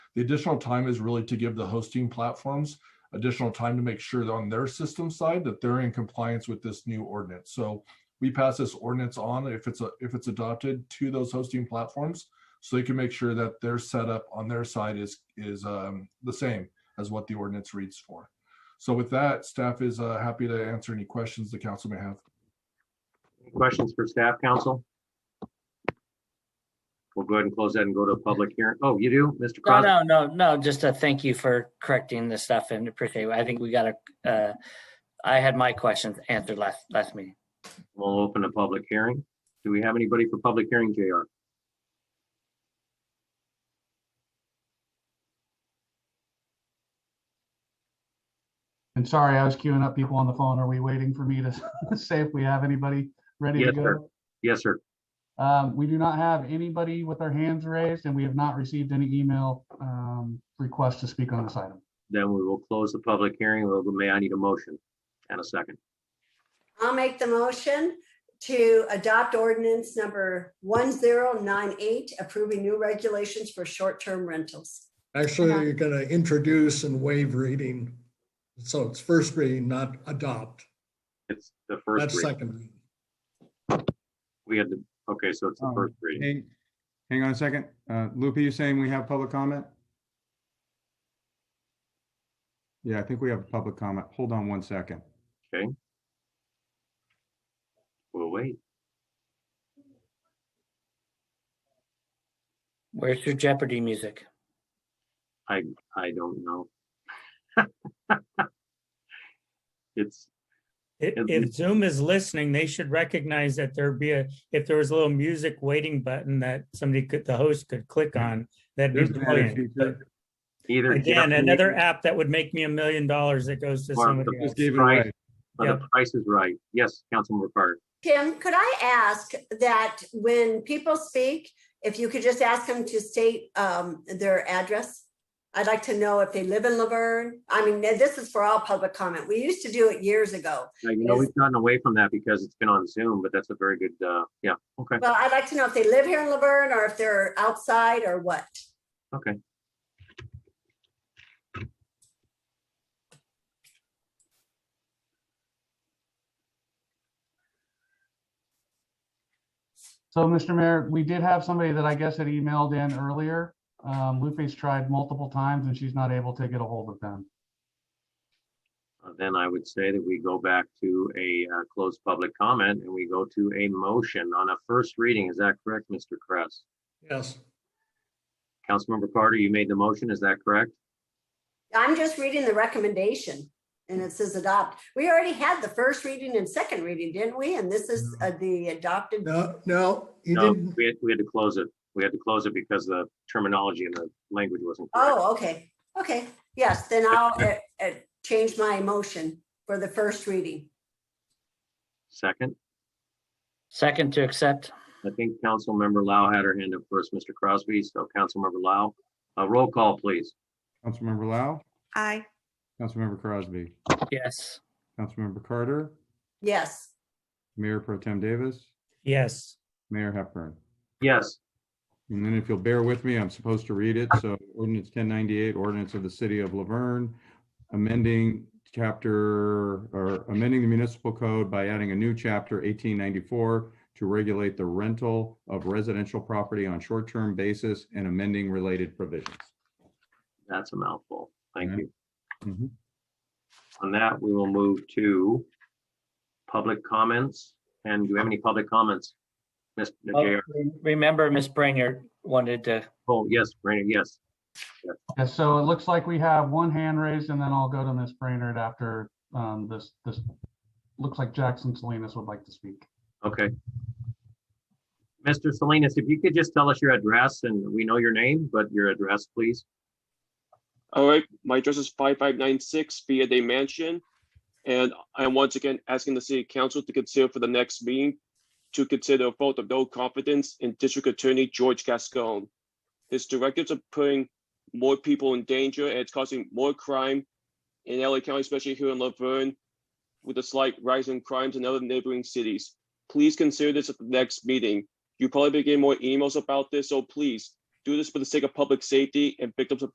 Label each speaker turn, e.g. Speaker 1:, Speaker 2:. Speaker 1: The additional time is really to give the hosting platforms additional time to make sure that on their system side that they're in compliance with this new ordinance. So we pass this ordinance on if it's, a- if it's adopted to those hosting platforms. So they can make sure that their setup on their side is, is um, the same as what the ordinance reads for. So with that, staff is uh, happy to answer any questions the council may have.
Speaker 2: Questions for staff, council? We'll go ahead and close that and go to a public hearing. Oh, you do, Mr.
Speaker 3: No,
Speaker 2: Crosby?
Speaker 3: no, no, no, just a thank you for correcting the stuff and appreciate, it. I think we got a, uh, I had my questions answered last, last meeting.
Speaker 2: We'll open a public hearing. Do we have anybody for public hearing, JR?
Speaker 4: And sorry, I was queuing up people on the phone. Are we waiting for me to say if we have anybody ready to
Speaker 2: Yes, sir.
Speaker 4: go?
Speaker 2: Yes, sir.
Speaker 4: Um, we do not have anybody with their hands raised and we have not received any email, um, requests to speak on this item.
Speaker 2: Then we will close the public hearing. Well, May I need a motion and a second?
Speaker 5: I'll make the motion to adopt ordinance number one zero nine eight, approving new regulations for short-term rentals.
Speaker 6: Actually,
Speaker 5: Yeah.
Speaker 6: you're gonna introduce and waive reading. So it's first reading, not adopt.
Speaker 2: It's the first
Speaker 6: That's
Speaker 2: reading.
Speaker 6: second. reading.
Speaker 2: We had the, okay, so it's the
Speaker 7: Um,
Speaker 2: first reading.
Speaker 7: Hang, hang on a second. Uh, Lupe, you saying we have public comment? Yeah, I think we have public comment. Hold on one second.
Speaker 2: We'll wait.
Speaker 3: Where's your Jeopardy music?
Speaker 2: I don't know. It's,
Speaker 8: If,
Speaker 2: At
Speaker 8: if
Speaker 2: least-
Speaker 8: Zoom is listening, they should recognize that there'd be a, if there was a little music waiting button that somebody could, the host could click on, that'd
Speaker 7: There's
Speaker 8: be
Speaker 7: an added
Speaker 8: brilliant. But
Speaker 7: feature.
Speaker 2: either.
Speaker 8: Again,
Speaker 2: Jeopardy
Speaker 8: another app that would make me a million dollars that goes to
Speaker 2: Or
Speaker 8: somebody
Speaker 2: the-
Speaker 8: else.
Speaker 7: Just gave it
Speaker 2: Right.
Speaker 7: away.
Speaker 2: Or the price is right. Yes, Councilmember Carter.
Speaker 5: Tim, could I ask that when people speak, if you could just ask them to state um, their address? I'd like to know if they live in Laverne. I mean, this is for all public comment. We used to do it years ago.
Speaker 2: Now, You know,
Speaker 5: Yes.
Speaker 2: we've gotten away from that because it's been on Zoom, but that's a very good, uh, yeah, okay,
Speaker 5: Well, I'd like to know if they live here in Laverne or if they're outside or what.
Speaker 2: okay.
Speaker 4: So, Mr. Mayor, we did have somebody that I guess had emailed in earlier. Um, Lupe's tried multiple times and she's not able to get a hold of them.
Speaker 2: Uh, Then I would say that we go back to a uh, closed public comment and we go to a motion on a first reading. Is that correct, Mr. Kress?
Speaker 6: Yes,
Speaker 2: Councilmember Carter, you made the motion, is that correct?
Speaker 5: I'm just reading the recommendation and it says adopt. We already had the first reading and second reading, didn't we? And this is uh, the adopted.
Speaker 6: no, no, you
Speaker 2: No,
Speaker 6: didn't,
Speaker 2: we had, we had to close it. We had to close it because the terminology and the language wasn't correct.
Speaker 5: Oh, okay, okay. Yes, then I'll uh, uh, change my motion for the first reading.
Speaker 2: Second,
Speaker 3: Second to accept,
Speaker 2: I think Councilmember Lau had her hand up first, Mr. Crosby, so Councilmember Lau, uh, roll call, please.
Speaker 7: Councilmember Lau,
Speaker 9: Aye.
Speaker 7: Councilmember Crosby,
Speaker 3: yes.
Speaker 7: Councilmember Carter,
Speaker 5: Yes,
Speaker 7: Mayor Pro Tem Davis,
Speaker 8: Yes,
Speaker 7: Mayor Hepburn.
Speaker 2: Yes,
Speaker 7: And then if you'll bear with me, I'm supposed to read it. So ordinance ten ninety-eight, ordinance of the city of Laverne, amending chapter or amending the municipal code by adding a new chapter eighteen ninety-four to regulate the rental of residential property on short-term basis and amending related provisions.
Speaker 2: that's a mouthful. Thank
Speaker 7: Yeah.
Speaker 2: you.
Speaker 7: Mhm.
Speaker 2: On that, we will move to public comments. And do we have any public comments? uh, Ms.
Speaker 3: Oh,
Speaker 2: Najera?
Speaker 3: re- Remember, Miss Brainerd wanted to,
Speaker 2: Oh, yes, Rainer, yes.
Speaker 4: Yeah, so it looks like we have one hand raised and then I'll go to Ms. Brainerd after, um, this, this, looks like Jackson Salinas would like to speak.
Speaker 2: Okay. Mr. Salinas, if you could just tell us your address and we know your name, but your address, please.
Speaker 10: All right, my address is five five nine six Via Day Mansion. And I'm once again asking the city council to consider for the next meeting to consider a vote of no confidence in District Attorney George Gascon. His directives are putting more people in danger and it's causing more crime in LA County, especially here in Laverne, with a slight rise in crimes in other neighboring cities. Please consider this at the next meeting. You probably be getting more emails about this, so please do this for the sake of public safety and victims of